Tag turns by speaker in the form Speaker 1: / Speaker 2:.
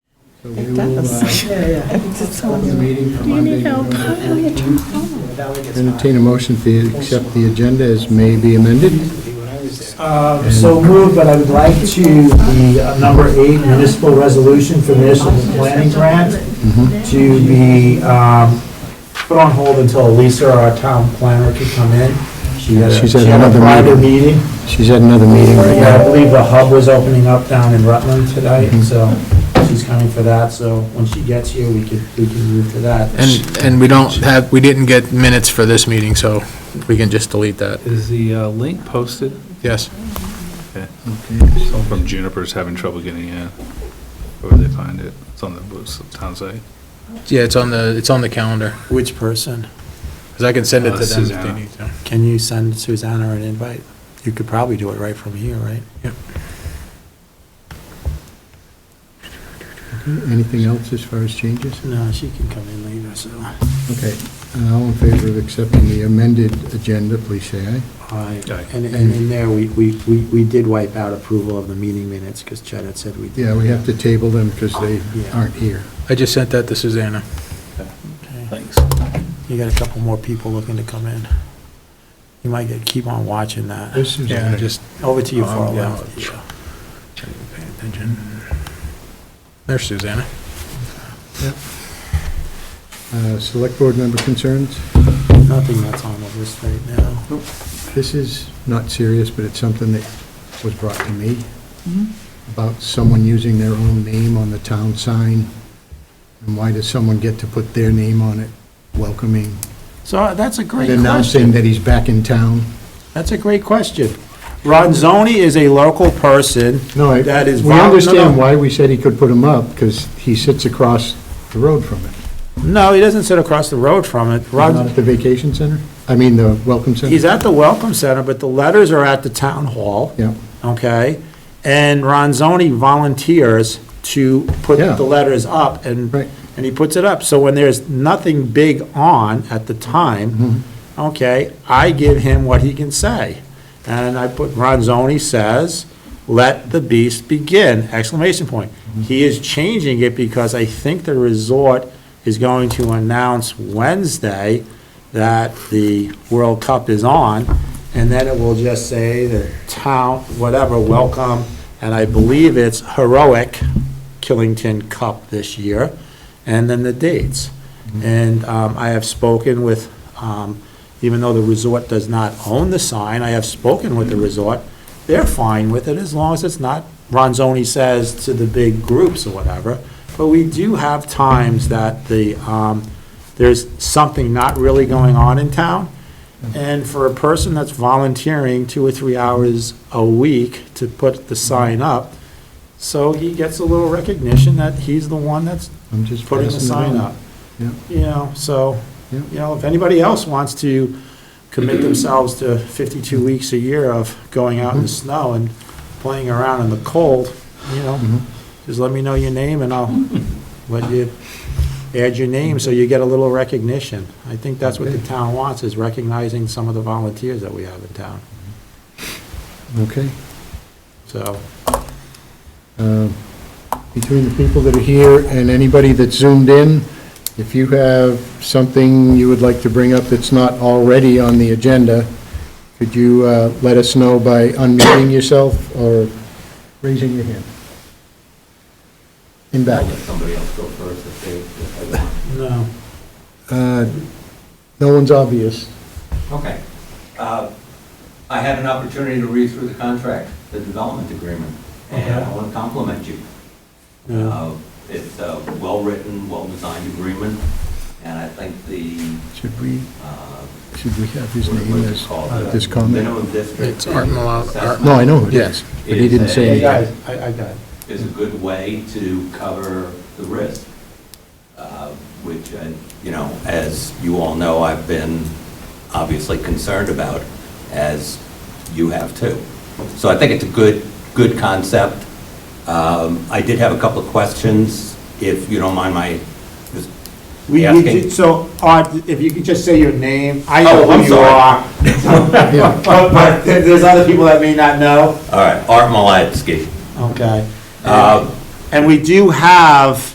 Speaker 1: So we will, uh,
Speaker 2: Yeah, yeah.
Speaker 1: hold the meeting for
Speaker 3: Do you
Speaker 1: Monday,
Speaker 3: need help?
Speaker 1: November
Speaker 3: Oh, you're
Speaker 1: 14th.
Speaker 2: Yeah, that one gets
Speaker 1: Entertain a motion to accept the agenda as may be amended.
Speaker 2: hot when I was there.
Speaker 4: Uh, So moved, but I would like to, the uh, number eight municipal resolution for municipal planning grant
Speaker 1: Mm-hmm.
Speaker 4: to be um, put on hold until Lisa, our town planner, could come in. She had a-
Speaker 1: She's
Speaker 4: she
Speaker 1: at
Speaker 4: had a
Speaker 1: another
Speaker 4: private meeting.
Speaker 1: She's at another meeting right
Speaker 4: Yeah, I
Speaker 1: now.
Speaker 4: believe the hub was opening up down in Rutland tonight,
Speaker 5: Mm-hmm.
Speaker 4: so she's coming for that. So when she gets here, we could, we can move to that.
Speaker 6: And, and we don't have, we didn't get minutes for this meeting, so we can just delete that.
Speaker 7: Is the uh, link posted?
Speaker 6: Yes.
Speaker 7: Someone from Juniper's having trouble getting in. Where would they find it? It's on the booth- town site.
Speaker 6: Yeah, it's on the, it's on the calendar,
Speaker 5: Which person?
Speaker 6: because I can send it
Speaker 7: Uh,
Speaker 6: to them if they
Speaker 7: Susanna.
Speaker 6: need to.
Speaker 5: Can you send Susanna an invite? You could probably do it right from here, right?
Speaker 1: Anything else as far as changes?
Speaker 5: No, she can come in later, so.
Speaker 1: Okay, Uh, all in favor of accepting the amended agenda, please say aye.
Speaker 5: Aye.
Speaker 7: Aye.
Speaker 5: And, and in there, we, we, we we did wipe out approval of the meeting minutes because Chad had said we did.
Speaker 1: Yeah, we have to table them because they
Speaker 5: Yeah.
Speaker 1: aren't here.
Speaker 6: I just sent that to Susanna.
Speaker 5: Okay.
Speaker 7: Thanks.
Speaker 5: You got a couple more people looking to come in. You might get, keep on watching that.
Speaker 1: This is,
Speaker 6: Yeah, just
Speaker 5: Over to you,
Speaker 6: Um, yeah.
Speaker 5: Farland. Yeah.
Speaker 6: pay attention. There's Susanna.
Speaker 1: uh, select board member concerns.
Speaker 5: Nothing that's on the list right now.
Speaker 1: This is not serious, but it's something that was brought to me about someone using their own name on the town sign. And why does someone get to put their name on it, welcoming,
Speaker 5: So uh, that's a great question.
Speaker 1: announcing that he's back in town?
Speaker 5: That's a great question. Ronzoni is a local person.
Speaker 1: No, I-
Speaker 5: That is
Speaker 1: we
Speaker 5: vol- no,
Speaker 1: understand
Speaker 5: no.
Speaker 1: why we said he could put him up, because he sits across the road from it.
Speaker 5: No, he doesn't sit across the road from it.
Speaker 1: Not
Speaker 5: Ron,
Speaker 1: at the vacation center? I mean, the welcome center?
Speaker 5: he's at the Welcome Center, but the letters are at the town hall,
Speaker 1: Yeah,
Speaker 5: okay? And Ronzoni volunteers to put
Speaker 1: Yeah.
Speaker 5: the letters up, and,
Speaker 1: Right.
Speaker 5: and he puts it up. So when there's nothing big on at the time,
Speaker 1: Mm-hmm.
Speaker 5: okay, I give him what he can say. And I put, Ronzoni says, "Let the beast begin!" exclamation point.
Speaker 1: Mm-hmm.
Speaker 5: He is changing it because I think the resort is going to announce Wednesday that the World Cup is on, and then it will just say the town, whatever, welcome, and I believe it's heroic Killington Cup this year, and then the dates. And um, I have spoken with, um, even though the resort does not own the sign, I have spoken with the resort. They're fine with it as long as it's not, Ronzoni says, to the big groups or whatever. But we do have times that the, um, there's something not really going on in town. And for a person that's volunteering two or three hours a week to put the sign up, so he gets a little recognition that he's the one that's
Speaker 1: I'm just
Speaker 5: putting the
Speaker 1: passing it
Speaker 5: sign
Speaker 1: on.
Speaker 5: up.
Speaker 1: Yeah.
Speaker 5: You know, so,
Speaker 1: Yeah.
Speaker 5: you know, if anybody else wants to commit themselves to 52 weeks a year of going out in the snow and playing around in the cold, you
Speaker 1: Mhm.
Speaker 5: know, just let me know your name and I'll let you add your name so you get a little recognition. I think that's what the
Speaker 1: Okay.
Speaker 5: town wants, is recognizing some of the volunteers that we have in town.
Speaker 1: Okay.
Speaker 5: So,
Speaker 1: Uh, Between the people that are here and anybody that's zoomed in, if you have something you would like to bring up that's not already on the agenda, could you uh, let us know by unmuting yourself or raising your hand? In back.
Speaker 5: no.
Speaker 1: Uh, No one's obvious.
Speaker 8: Okay. Uh, I had an opportunity to read through the contract, the development agreement, and I want to compliment you.
Speaker 5: no.
Speaker 8: Uh, It's a well-written, well-designed agreement, and I think the,
Speaker 1: Should we,
Speaker 8: uh,
Speaker 1: should we have his
Speaker 8: what
Speaker 1: name
Speaker 8: what is
Speaker 1: as
Speaker 8: it called?
Speaker 1: Uh, this
Speaker 8: The
Speaker 1: comment?
Speaker 8: Minimum district.
Speaker 6: It's Art Millar-
Speaker 8: assessment
Speaker 1: No, I know who it is, but he didn't say
Speaker 5: Hey,
Speaker 8: Hey,
Speaker 1: anything.
Speaker 5: guys, I, I got it.
Speaker 8: Is a good way to cover the risk, uh, which, uh, you know, as you all know, I've been obviously concerned about, as you have too. So I think it's a good, good concept. Um, I did have a couple of questions, if you don't mind my just
Speaker 5: We, we
Speaker 8: asking.
Speaker 5: ju- so, Art, if you could just say your name, I
Speaker 8: Oh,
Speaker 5: know
Speaker 8: I'm
Speaker 5: who you
Speaker 8: sorry.
Speaker 5: are. But, but there- there's other people that may not know.
Speaker 8: All right, Art Malatski.
Speaker 5: Okay.
Speaker 8: Uh,
Speaker 5: And we do have